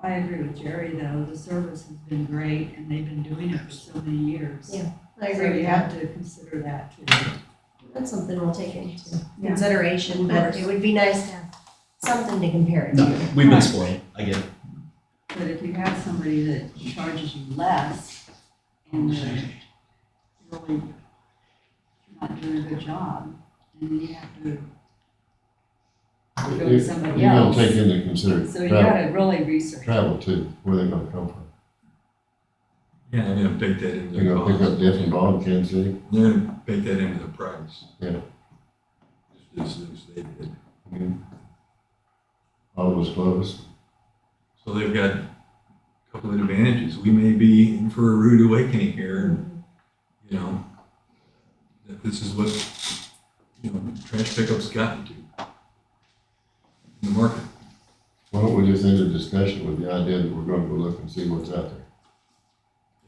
I agree with Jerry though, the service has been great and they've been doing it for so many years. Yeah, I So agree you with that. have to consider that too. That's something we'll take into Yeah. consideration, but it would be nice to have something to compare it No, to. we've been spoiled, I get it. But if you have somebody that charges you less and they're really not doing a good job, and then you have to go to You're somebody gonna else. take into consideration So you travel, gotta really research. travel too, where they gonna come from. Yeah, and then bake that into They're the gonna cost. pick up Death and Bond, Kansas City, They're gonna bake that into the price. Yeah. Just as as they did. I mean, all those clubs. So they've got a couple of advantages. We may be in for a rude awakening here, and, you know, that this is what, you know, trash pickup's gotten to in the market. Why don't we just end the discussion with the idea that we're gonna go look and see what's out there?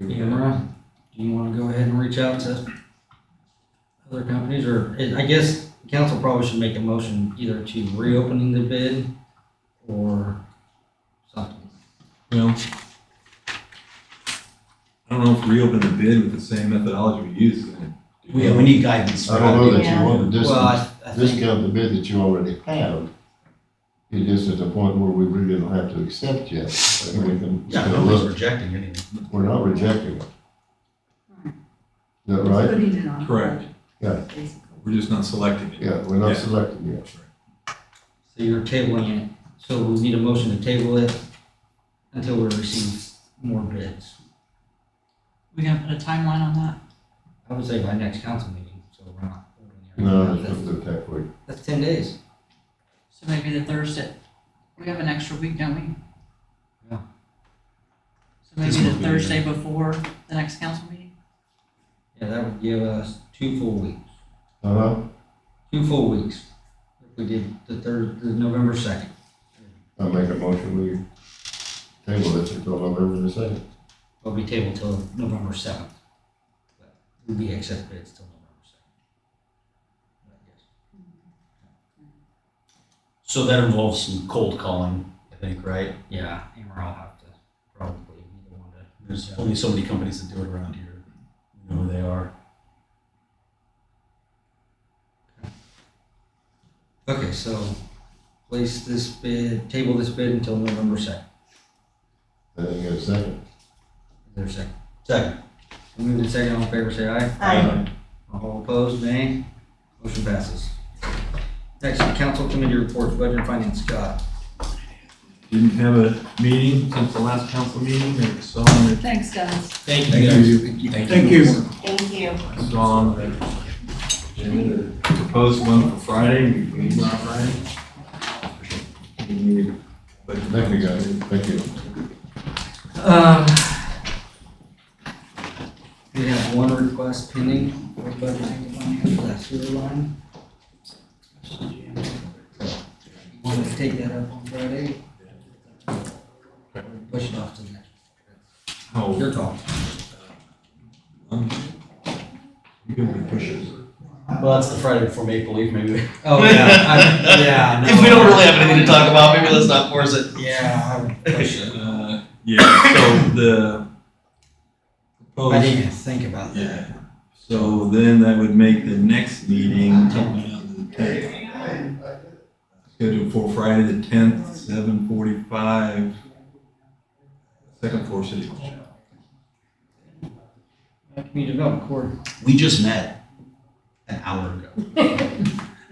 Amara, do you want to go ahead and reach out to other companies, or eh, I guess council probably should make a motion either to reopening the bid or something. Well, I don't know if reopen the bid with the same methodology we used. is gonna do We, that. we need guidance. I don't know that you Yeah. want to Well, discount, I, I think, discount the bid that you already have. It is at the point where we really don't have to accept yet, and we can Yeah, still nobody's look, rejecting anything. we're not rejecting it. Is that right? Putting it on. Correct. Yeah. Basically. We're just not selecting it. Yeah, we're not Yeah. selecting yet. so you're tabling it, so we need a motion to table it until we receive more bids. We gonna put a timeline on that? I would say by next council meeting, so we're not. No, that's what the tech week. That's ten days. So maybe the Thursday, we have an extra week, don't we? Yeah. So maybe This the will be- Thursday before the next council meeting? Yeah, that would give us two full weeks. Uh-huh. two full weeks. If we did the third, the November second. I make a motion, we table this until November the second. It'll be tabled till November seventh. We'll be accept bids till November second. So that involves some cold calling, I think, right? Yeah, Amber, I'll have to probably be the one to. There's only so many companies that do it around here. You know who they are. Okay, so place this bid, table this bid until November second. I didn't get a second. Is there a second? Second. Move to second, all in favor, say aye. All opposed, nay. Motion passes. Next, council committee reports, budget and finance, Scott. Didn't have a meeting since the last council meeting, I saw on the, Thanks, guys. Thank Thank you guys. you. Thank you. Thank you. I saw on the agenda, the proposed one for Friday, we meet on Friday. We need- but- Thank you, guys. Thank you. Um, We have one request pending for budget for that sewer line. Want to take that up on Friday? Push it off to the next. Oh, Your call. um, you can be pushers. Well, that's the Friday before Maple Leaf, maybe. Oh, yeah, I, yeah, I know. If we don't really have anything to talk about, maybe let's not force it. Yeah, I would push it. Uh, Yeah, so the. I proposed- didn't even think about that. Yeah, so then that would make the next meeting scheduled for Friday the tenth, seven forty-five. Second floor city hall. Community development court. We just met an hour ago.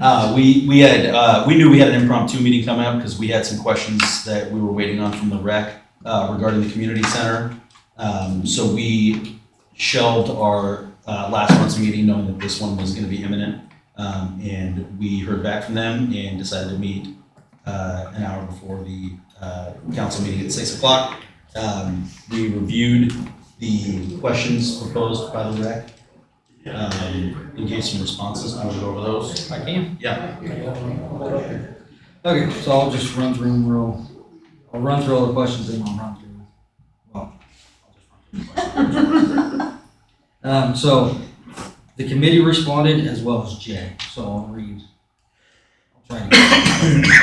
Uh, we, we had, uh, we knew we had an impromptu meeting coming up because we had some questions that we were waiting on from the rec, uh, regarding the community center. Um, so we shelved our, uh, last month's meeting knowing that this one was gonna be imminent. Um, and we heard back from them and decided to meet, uh, an hour before the, uh, council meeting at six o'clock. Um, we reviewed the questions proposed by the rec um, and gave some responses. I will go over those. I can. Yeah. Okay, so I'll just run through them real, I'll run through all the questions and I'll run through, well, I'll just run through the questions. Um, so the committee responded as well as Jay, so I'll read. I'll try to.